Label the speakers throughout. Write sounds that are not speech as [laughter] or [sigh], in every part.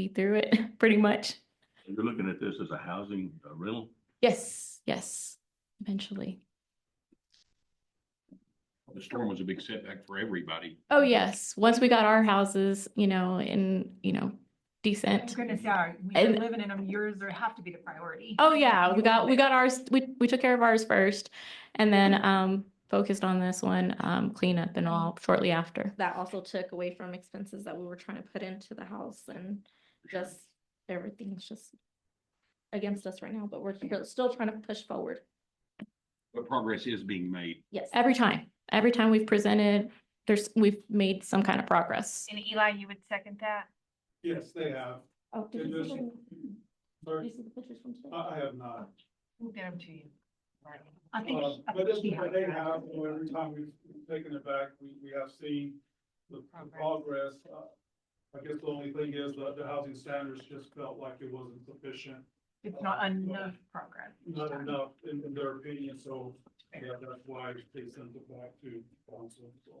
Speaker 1: be through it, [laughs] pretty much.
Speaker 2: You're looking at this as a housing uh, rental?
Speaker 1: Yes, yes, eventually.
Speaker 2: The storm was a big setback for everybody.
Speaker 1: Oh, yes, once we got our houses, you know, in, you know, decent.
Speaker 3: Oh, Goodness, yeah, we are
Speaker 1: And-
Speaker 3: living in them, yours are- have to be the priority.
Speaker 1: Oh, yeah, we
Speaker 3: You
Speaker 1: got,
Speaker 3: own
Speaker 1: we
Speaker 3: it.
Speaker 1: got ours, we, we took care of ours first and then, um, focused on this one, um, cleanup and all shortly after. That also took away from expenses that we were trying to put into the house and just everything's just against us right now, but we're still- still trying to push forward.
Speaker 2: But progress is being made.
Speaker 1: Yes, every time, every time we've presented, there's, we've made some kind of progress.
Speaker 4: And Eli, you would second that?
Speaker 5: Yes, they have.
Speaker 1: Oh,
Speaker 5: did you see the- Sorry,
Speaker 1: the pictures from today?
Speaker 5: I, I have not.
Speaker 4: Who get them to you? Martin?
Speaker 3: I think.
Speaker 5: Uh,
Speaker 3: I
Speaker 5: But
Speaker 3: think
Speaker 5: this
Speaker 3: we
Speaker 5: is what
Speaker 3: have
Speaker 5: they
Speaker 3: that.
Speaker 5: have, you know, every time we've we've taken it back, we, we have seen the the progress. Uh, I guess the only thing is that the housing standards just felt like it wasn't sufficient,
Speaker 3: It's not enough progress. each
Speaker 5: not
Speaker 3: time.
Speaker 5: enough in, in their opinion, so yeah, that's why they sent it back to council, so.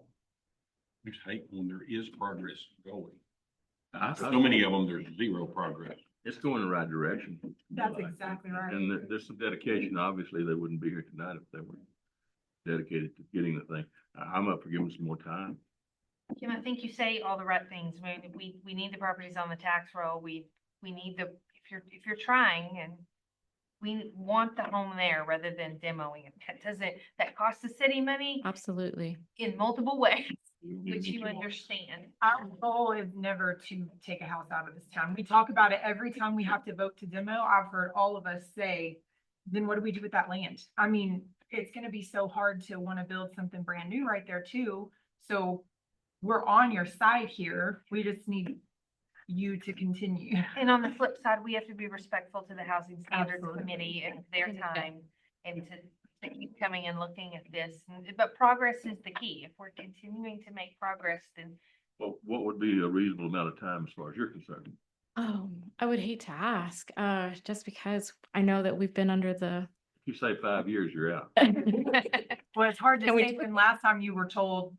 Speaker 2: I just hate when there is progress going. So many of them, there's zero progress.
Speaker 6: It's going in the right direction.
Speaker 3: That's exactly right.
Speaker 6: And there- there's some dedication. Obviously, they wouldn't be here tonight if they weren't dedicated to getting the thing. I- I'm up for giving some more time.
Speaker 4: Kim, I think you say all the right things. We, we, we need the properties on the tax roll. We, we need the, if you're, if you're trying and we want the home there rather than demoing it. That doesn't, that costs the city money
Speaker 1: Absolutely.
Speaker 4: in
Speaker 3: [laughs]
Speaker 4: multiple ways, which
Speaker 2: It's
Speaker 4: you understand.
Speaker 3: Our goal is never to take a house out of this town. We talk about it every time we have to vote to demo. I've heard all of us say, then what do we do with that land? I mean, it's gonna be so hard to wanna build something brand new right there too. So we're on your side here. We just need you to continue. [laughs]
Speaker 4: And on the flip side, we have to be respectful to the Housing Standards
Speaker 3: Absolutely.
Speaker 4: Committee and their
Speaker 1: Yeah.
Speaker 4: time and to, to keep coming and looking at this. And- But progress is the key. If we're continuing to make progress, then
Speaker 6: Well, what would be a reasonable amount of time as far as you're concerned?
Speaker 1: Um, I would hate to ask, uh, just because I know that we've been under the. [laughs]
Speaker 6: If you say five years, you're out.
Speaker 3: Well, it's hard to
Speaker 1: Can we
Speaker 3: say
Speaker 1: do-
Speaker 3: when last time you were told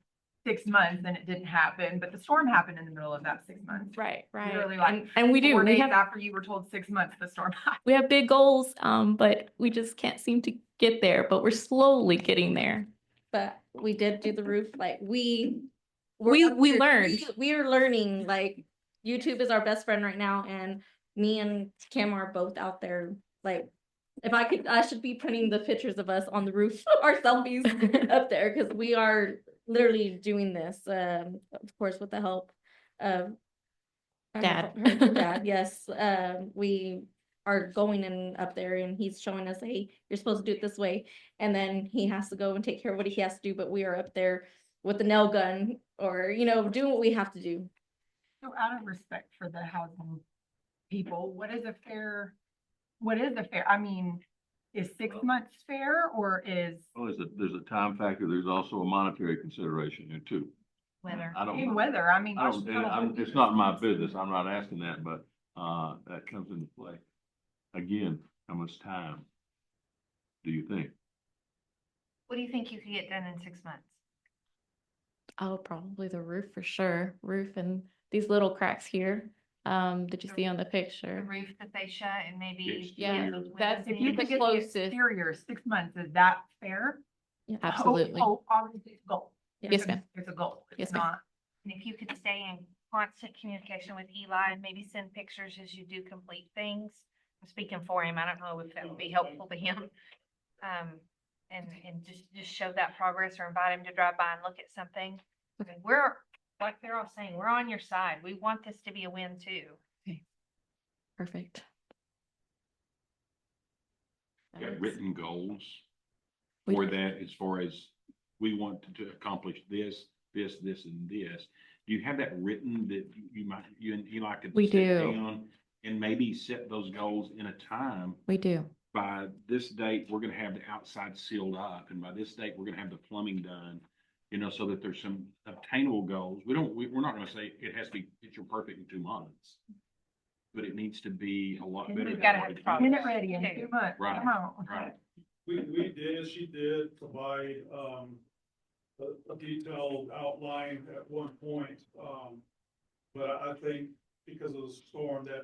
Speaker 3: six months and it didn't happen, but the storm happened in the middle of that six months.
Speaker 1: Right, right.
Speaker 3: Literally like
Speaker 1: And, and we do,
Speaker 3: Four
Speaker 1: we
Speaker 3: days
Speaker 1: have,
Speaker 3: after you were told six months, the storm happened.
Speaker 1: we have big goals, um, but we just can't seem to get there, but we're slowly getting there.
Speaker 7: but we did do the roof, like we. we're
Speaker 1: We,
Speaker 7: up
Speaker 1: we
Speaker 7: here-
Speaker 1: learned.
Speaker 7: we- We are learning, like YouTube is our best friend right now and me and Cam are both out there, like. If I could, I should be printing the pictures of us on the roof, [laughs] our selfies up there, cause we are literally doing this, um, of course, with the help of. I don't
Speaker 1: Dad.
Speaker 7: know, her Dad, [laughs] yes, um, we are going in up there and he's showing us, hey, you're supposed to do it this way. And then he has to go and take care of what he has to do, but we are up there with the nail gun or, you know, doing what we have to do.
Speaker 3: So out of respect for the housing people, what is a fair, what is a fair, I mean, is six
Speaker 6: Well-
Speaker 3: months fair or is?
Speaker 6: Well, Oh, there's a, there's a time factor. There's also a monetary consideration here too.
Speaker 4: whether.
Speaker 6: I
Speaker 3: And
Speaker 6: don't,
Speaker 3: whether, I mean.
Speaker 6: I
Speaker 3: gosh,
Speaker 6: don't,
Speaker 3: I don't
Speaker 6: I'm,
Speaker 3: know.
Speaker 6: it's not my business. I'm not asking that, but, uh, that comes into play. Again, how much time do you think?
Speaker 4: What do you think you could get done in six months?
Speaker 1: Oh, probably the roof for sure. Roof and these little cracks here. Um, did you
Speaker 4: The-
Speaker 1: see on the
Speaker 4: The
Speaker 1: picture?
Speaker 4: roof, the fascia, and maybe.
Speaker 1: Yeah,
Speaker 4: the
Speaker 1: that's
Speaker 3: If
Speaker 4: windows
Speaker 3: you
Speaker 4: and-
Speaker 1: the
Speaker 3: could get
Speaker 1: closest.
Speaker 3: the exterior six months, is that fair?
Speaker 1: Yeah,
Speaker 3: Oh,
Speaker 1: Absolutely.
Speaker 3: Oh, obviously it's a goal.
Speaker 7: Yes,
Speaker 3: There's a-
Speaker 1: ma'am.
Speaker 3: There's a goal. It's
Speaker 1: Yes, ma'am.
Speaker 3: not-
Speaker 4: And if you could stay in constant communication with Eli and maybe send pictures as you do complete things. I'm speaking for him. I don't know if that would be helpful to him. Um, and, and just, just show that progress or invite him to drive by and look at something. I mean, We're, like they're all saying, we're on your side. We want this to be a win too.
Speaker 1: Perfect. That
Speaker 2: Got
Speaker 1: works.
Speaker 2: written goals
Speaker 1: We-
Speaker 2: for that as far as we want to accomplish this, this, this, and this. Do you have that written that you- you might, you and Eli could?
Speaker 1: We
Speaker 2: sit
Speaker 1: do.
Speaker 2: down And maybe set those goals in a time
Speaker 1: We do.
Speaker 2: by this date, we're gonna have the outside sealed up, and by this date, we're gonna have the plumbing done. You know, so that there's some obtainable goals. We don't, we, we're not gonna say it has to be picture perfect in two months. But it needs to be a lot
Speaker 3: And
Speaker 2: better.
Speaker 3: we've
Speaker 2: than
Speaker 4: gotta
Speaker 2: what
Speaker 4: have
Speaker 2: it
Speaker 4: progress.
Speaker 2: is.
Speaker 3: Minute ready in
Speaker 4: Okay.
Speaker 3: two months.
Speaker 2: Right,
Speaker 3: Come on.
Speaker 2: Right.
Speaker 5: We, we did, she did provide, um, a, a detailed outline at one point, um, but I I think because of the storm that